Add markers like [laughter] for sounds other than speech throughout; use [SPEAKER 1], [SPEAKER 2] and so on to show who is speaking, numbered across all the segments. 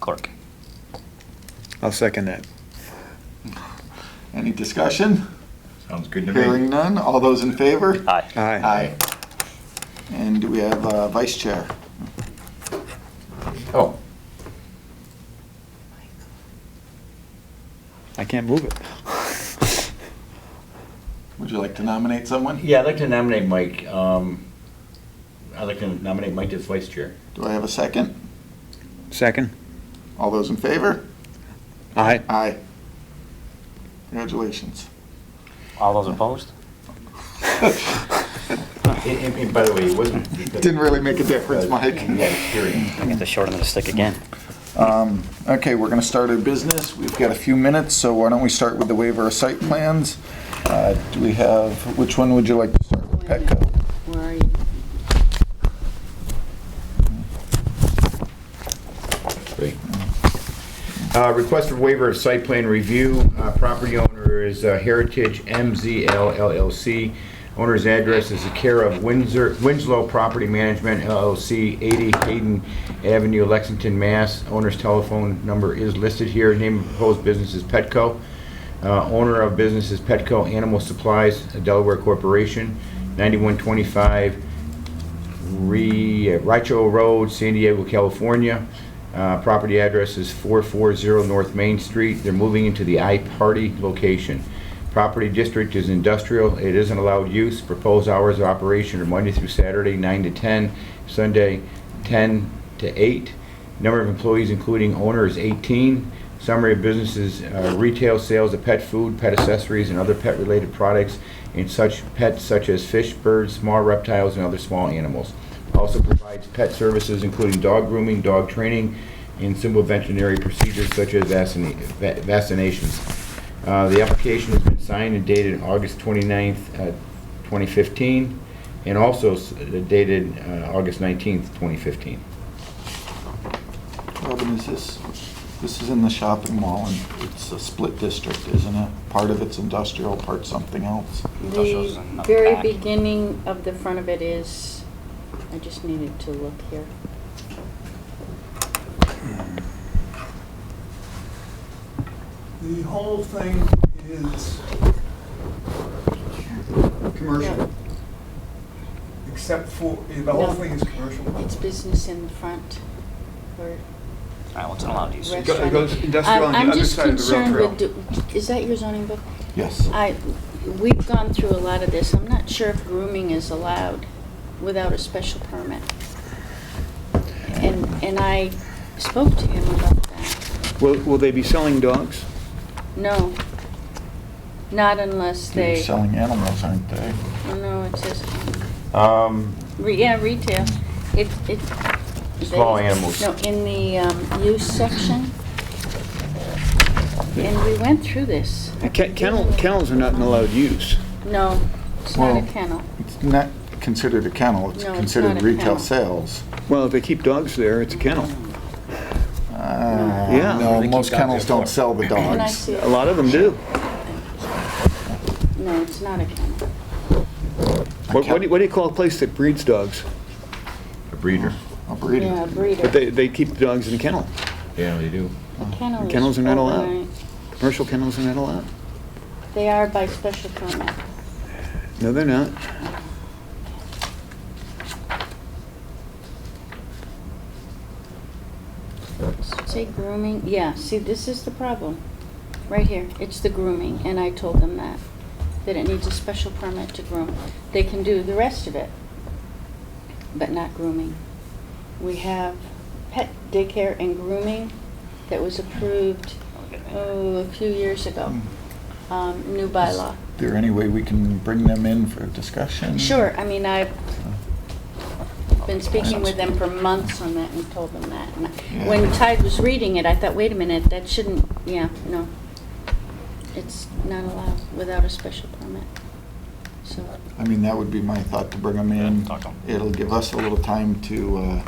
[SPEAKER 1] clerk.
[SPEAKER 2] I'll second that.
[SPEAKER 3] Any discussion?
[SPEAKER 4] Sounds good to me.
[SPEAKER 3] Hearing none. All those in favor?
[SPEAKER 1] Aye.
[SPEAKER 2] Aye.
[SPEAKER 3] Aye. And do we have a vice chair?
[SPEAKER 4] Oh,
[SPEAKER 2] I can't move it.
[SPEAKER 3] Would you like to nominate someone?
[SPEAKER 4] yeah, I'd like to nominate Mike. Um, I'd like to nominate Mike as vice chair.
[SPEAKER 3] Do I have a second?
[SPEAKER 2] Second?
[SPEAKER 3] All those in favor?
[SPEAKER 2] Aye.
[SPEAKER 3] Aye. Congratulations. [laughs]
[SPEAKER 1] All those opposed?
[SPEAKER 4] And, and- and by the way, it wasn't. because-
[SPEAKER 3] Didn't really make a difference, Mike.
[SPEAKER 4] Yeah, hearing.
[SPEAKER 1] I get the short end of the stick again.
[SPEAKER 3] Um, Okay, we're going to start our business. We've got a few minutes, so why don't we start with the waiver of site plans? Uh, Do we have, which one would you like to start with? Petco?
[SPEAKER 5] Where are you?
[SPEAKER 4] Great. Uh, Request for waiver of site plan review. Uh, Property owner is uh, Heritage MZL LLC. Owner's address is the care of Windsor, Winslow Property Management LLC, 80 Hayden Avenue, Lexington, Mass. Owner's telephone number is listed here. Name of proposed business is Petco. Uh, Owner of business is Petco Animal Supplies, a Delaware Corporation, 9125 Re, uh, Richo Road, San Diego, California. Uh, Property address is 440 North Main Street. They're moving into the I-Party location. Property district is industrial. It isn't allowed use. Proposed hours of operation are Monday through Saturday, 9 to 10, Sunday, 10 to 8. Number of employees, including owner, is 18. Summary of businesses, uh, retail sales of pet food, pet accessories, and other pet-related products, and such pets such as fish, birds, small reptiles, and other small animals. Also provides pet services including dog grooming, dog training, and simple veterinary procedures such as vaccina- va- vaccinations. Uh, The application has been signed and dated August 29th, uh, 2015, and also s- dated uh, August 19th, 2015.
[SPEAKER 3] Robin, is this, this is in the shopping mall, and it's a split district, isn't it? Part of it's industrial, part something else.
[SPEAKER 1] Industrial's
[SPEAKER 5] The
[SPEAKER 1] in the
[SPEAKER 5] very
[SPEAKER 1] back.
[SPEAKER 5] beginning of the front of it is, I just needed to look here.
[SPEAKER 6] The whole thing is commercial, except for, the whole thing is commercial.
[SPEAKER 5] It's business in the front or
[SPEAKER 1] All right, what's an allowed use?
[SPEAKER 6] go- it goes
[SPEAKER 5] restaurant.
[SPEAKER 6] industrial on
[SPEAKER 5] I'm-
[SPEAKER 6] the other side of the rail
[SPEAKER 5] I'm just concerned with, do- is that your zoning book?
[SPEAKER 3] Yes.
[SPEAKER 5] I, we've gone through a lot of this. I'm not sure if grooming is allowed without a special permit. And, and I spoke to him about that.
[SPEAKER 2] Will, will they be selling dogs?
[SPEAKER 5] No, not unless
[SPEAKER 3] They're
[SPEAKER 5] they,
[SPEAKER 3] selling animals, aren't they?
[SPEAKER 5] oh, no, it says,
[SPEAKER 4] Um,
[SPEAKER 5] re- yeah, retail. It, it.
[SPEAKER 4] Small
[SPEAKER 5] they-
[SPEAKER 4] animals.
[SPEAKER 5] No, in the um, use section. And we went through this.
[SPEAKER 2] Ke- Kennel, kennels are not an allowed use.
[SPEAKER 5] No, it's not a
[SPEAKER 3] Well,
[SPEAKER 5] kennel.
[SPEAKER 3] It's not considered a kennel, it's
[SPEAKER 5] No, it's
[SPEAKER 3] considered
[SPEAKER 5] not a
[SPEAKER 3] retail
[SPEAKER 5] kennel.
[SPEAKER 3] sales.
[SPEAKER 2] Well, if they keep dogs there, it's a kennel. Yeah.
[SPEAKER 3] Ah, No,
[SPEAKER 2] They keep
[SPEAKER 3] most
[SPEAKER 4] dogs
[SPEAKER 3] kennels
[SPEAKER 4] there for-
[SPEAKER 3] don't sell the
[SPEAKER 5] Can I
[SPEAKER 3] dogs.
[SPEAKER 5] see
[SPEAKER 2] A
[SPEAKER 5] it?
[SPEAKER 2] lot of them do.
[SPEAKER 5] No, it's not a kennel.
[SPEAKER 2] What, what do you- what do you call a place that breeds dogs?
[SPEAKER 4] A breeder.
[SPEAKER 3] Oh, A breeder.
[SPEAKER 5] Yeah, a breeder.
[SPEAKER 2] But they, they keep the dogs in a kennel.
[SPEAKER 4] Yeah, they do.
[SPEAKER 5] The kennel is
[SPEAKER 2] Kennels are not allowed.
[SPEAKER 5] overnight.
[SPEAKER 2] Commercial kennels are not allowed.
[SPEAKER 5] They are by special permit.
[SPEAKER 2] No, they're not.
[SPEAKER 5] Say grooming, yeah, see, this is the problem, right here, it's the grooming, and I told them that, that it needs a special permit to groom. They can do the rest of it, but not grooming. We have pet daycare and grooming that was approved, oh, a few years ago, um, new bylaw.
[SPEAKER 3] Is there any way we can bring them in for discussion?
[SPEAKER 5] Sure, I mean, I've been speaking with them for months on that and told them that. And I- When Tide was reading it, I thought, wait a minute, that shouldn't, yeah, no. It's not allowed without a special permit. So,
[SPEAKER 3] I mean, that would be my thought, to bring them in.
[SPEAKER 1] Yeah, talk to 'em.
[SPEAKER 3] It'll give us a little time to, uh,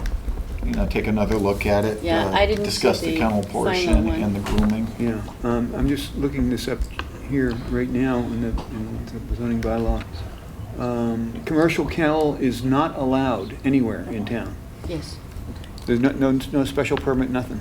[SPEAKER 3] you know, take another look at it.
[SPEAKER 5] Yeah,
[SPEAKER 3] uh,
[SPEAKER 5] I didn't see
[SPEAKER 3] Discuss the
[SPEAKER 5] the
[SPEAKER 3] kennel
[SPEAKER 5] final
[SPEAKER 3] portion
[SPEAKER 5] one.
[SPEAKER 3] and the grooming.
[SPEAKER 2] Yeah, um, I'm just looking this up here right now in the, in the zoning bylaw. Um, commercial kennel is not allowed anywhere in town.
[SPEAKER 5] yes.
[SPEAKER 2] There's no, no, no special permit, nothing.